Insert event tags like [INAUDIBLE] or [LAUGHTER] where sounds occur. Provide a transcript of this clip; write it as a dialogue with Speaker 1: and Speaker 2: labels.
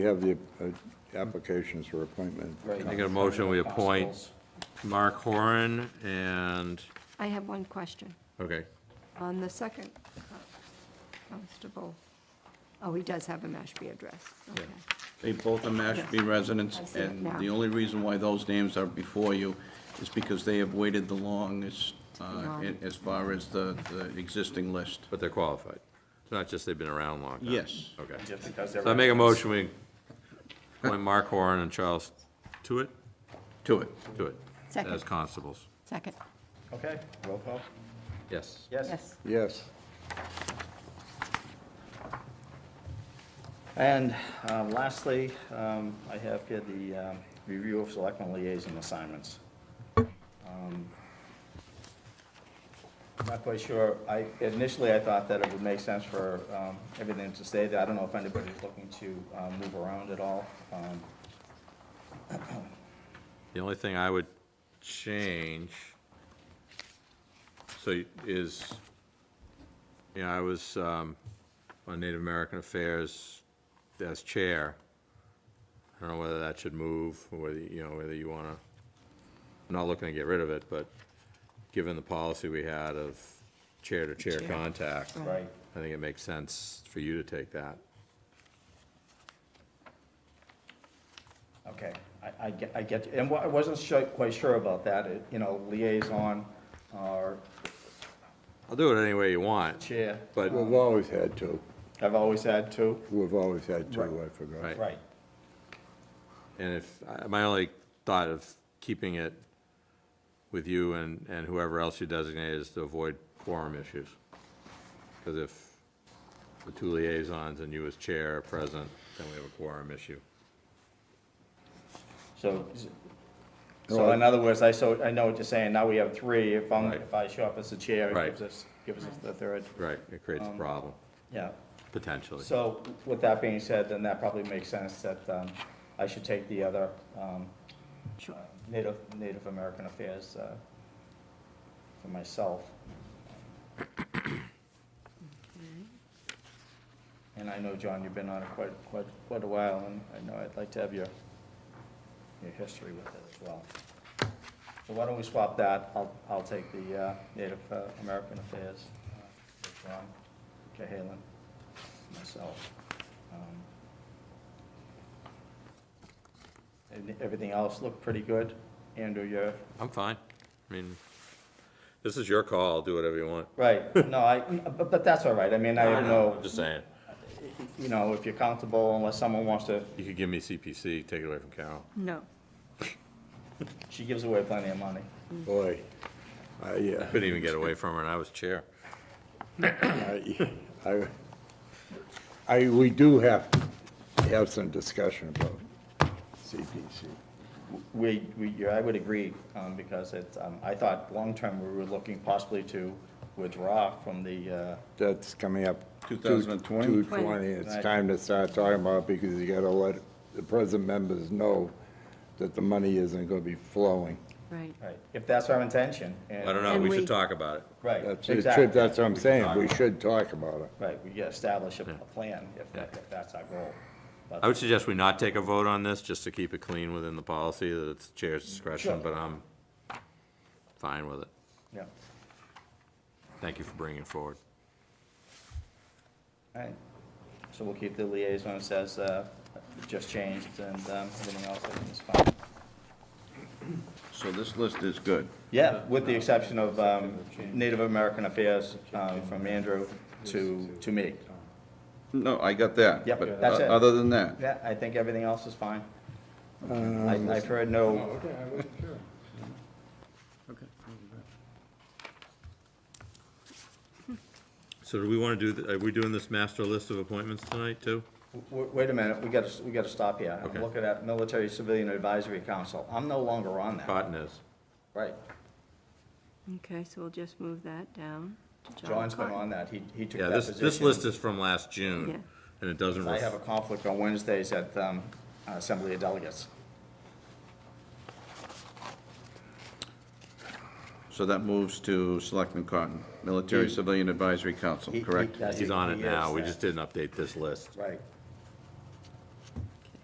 Speaker 1: We have the uh, applications for appointment.
Speaker 2: I get a motion, we appoint Mark Horan and,
Speaker 3: I have one question.
Speaker 2: okay,
Speaker 3: On the second uh, constable, oh, he does have a Mashpee address. Okay.
Speaker 4: They both are Mashpee residents,
Speaker 3: I see it
Speaker 4: and
Speaker 3: now.
Speaker 4: the only reason why those names are before you is because they have waited the longest uh,
Speaker 3: Long.
Speaker 4: in- as far as the the existing list.
Speaker 2: but they're qualified. It's not just they've been around long time.
Speaker 4: Yes.
Speaker 2: Okay.
Speaker 5: Just because
Speaker 2: So I make a motion, we appoint Mark Horan and Charles Tuitt,
Speaker 4: To it.
Speaker 2: Tuitt,
Speaker 3: Second.
Speaker 2: as constables.
Speaker 3: Second,
Speaker 5: Okay, roll call?
Speaker 2: Yes.
Speaker 3: yes.
Speaker 1: Yes,
Speaker 5: And um, lastly, um, I have here the um, review of selectmen liaison assignments. Um, Not quite sure, I, initially I thought that it would make sense for um, everything to stay there. I don't know if anybody's looking to uh, move around at all. Um,
Speaker 2: The only thing I would change, so you- is, you know, I was um, on Native American Affairs as chair. I don't know whether that should move, or whether, you know, whether you want to, I'm not looking to get rid of it, but given the policy we had of chair-to-chair
Speaker 3: Chair.
Speaker 2: contact, I
Speaker 5: Right,
Speaker 2: think it makes sense for you to take that.
Speaker 5: okay, I, I get, I get, and wa- I wasn't sure- quite sure about that, It- you know, liaison or
Speaker 2: I'll do it any way you want,
Speaker 5: chair.
Speaker 2: but,
Speaker 1: we've always had two.
Speaker 5: I've always had two.
Speaker 1: We've always had two, I
Speaker 5: Right.
Speaker 1: forgot.
Speaker 2: Right.
Speaker 5: Right,
Speaker 2: And if, I- my only thought of keeping it with you and, and whoever else you designate is to avoid quorum issues. Because if the two liaisons and you as chair are present, then we have a quorum issue.
Speaker 5: so, so in other words, I, so, I know what you're saying, now we have three, if I'm,
Speaker 2: Right.
Speaker 5: if I show up as the chair, it
Speaker 2: Right.
Speaker 5: gives us, gives us the third,
Speaker 2: Right, it creates a problem,
Speaker 5: yeah.
Speaker 2: potentially.
Speaker 5: Um, So, with that being said, then that probably makes sense that, um, I should take the other, um,
Speaker 3: Sure.
Speaker 5: Native, Native American Affairs, uh, for myself. And I know, John, you've been on it quite, quite, quite a while, and I know I'd like to have your, your history with it as well. So why don't we swap that? I'll, I'll take the uh, Native uh, American Affairs, uh, with John Cahalan, myself. Um, and Everything else looked pretty good. Andrew, you're,
Speaker 2: I'm fine. I mean, this is your call, I'll do whatever you want.
Speaker 5: right, no, I, but, but that's all right. I mean, I don't know,
Speaker 2: Just saying.
Speaker 5: you know, if you're comfortable, unless someone wants to,
Speaker 2: You could give me CPC, take it away from Carol.
Speaker 3: No.
Speaker 5: she gives away plenty of money.
Speaker 1: Boy, I, uh,
Speaker 2: [LAUGHS] Couldn't even get away from her, and I was chair.
Speaker 1: I, I, I, we do have to have some discussion about CPC.
Speaker 5: We, we, yeah, I would agree, um, because it's, um, I thought long-term, we were looking possibly to withdraw from the, uh,
Speaker 1: That's coming up.
Speaker 4: 2020?
Speaker 1: 2020, it's
Speaker 5: Right.
Speaker 1: time to start talking about, it because you gotta let the present members know that the money isn't gonna be flowing.
Speaker 3: Right.
Speaker 5: right, if that's our intention. and-
Speaker 2: I don't know,
Speaker 3: And
Speaker 2: we
Speaker 3: we-
Speaker 2: should talk about it.
Speaker 5: Right,
Speaker 1: That's, it should-
Speaker 5: exactly.
Speaker 1: that's what I'm saying, we should talk about it.
Speaker 5: Right, we establish a a plan if,
Speaker 2: Yeah.
Speaker 5: if that's our goal.
Speaker 2: I would suggest we not take a vote on this, just to keep it clean within the policy, that it's chair's discretion,
Speaker 5: Sure.
Speaker 2: but I'm fine with it.
Speaker 5: Yeah,
Speaker 2: Thank you for bringing it forward.
Speaker 5: all right. So we'll keep the liaison, it says, uh, just changed, and um, everything else I think is fine.
Speaker 4: So this list is good.
Speaker 5: Yeah, with the exception of um, Native American Affairs um, from Andrew to, to me.
Speaker 4: No, I got that.
Speaker 5: Yep,
Speaker 4: but
Speaker 5: that's it.
Speaker 4: Other than that,
Speaker 5: Yeah, I think everything else is fine. I- I've heard
Speaker 2: Oh,
Speaker 5: no,
Speaker 2: So do we want to do, th- are we doing this master list of appointments tonight, too?
Speaker 5: w- wait a minute, we gotta, s- we gotta stop here.
Speaker 2: Okay.
Speaker 5: I'm looking at Military Civilian Advisory Council. I'm no longer on that.
Speaker 2: Cotton is.
Speaker 5: Right.
Speaker 3: Okay, so we'll just move that down to John
Speaker 5: John's been
Speaker 3: Cotton.
Speaker 5: on that. He, he took
Speaker 2: Yeah,
Speaker 5: that
Speaker 2: this,
Speaker 5: position.
Speaker 2: this list is from last
Speaker 3: Yeah.
Speaker 2: June, and it doesn't,
Speaker 5: I have a
Speaker 2: ref-
Speaker 5: conflict on Wednesdays at um, Assembly of Delegates.
Speaker 4: so that moves to Selectman Cotton, Military Civilian Advisory Council,
Speaker 5: He- he-
Speaker 4: correct?
Speaker 5: that's-
Speaker 2: he's on it
Speaker 5: he
Speaker 2: now,
Speaker 5: is
Speaker 2: we
Speaker 5: that.
Speaker 2: just didn't update this list.
Speaker 5: Right.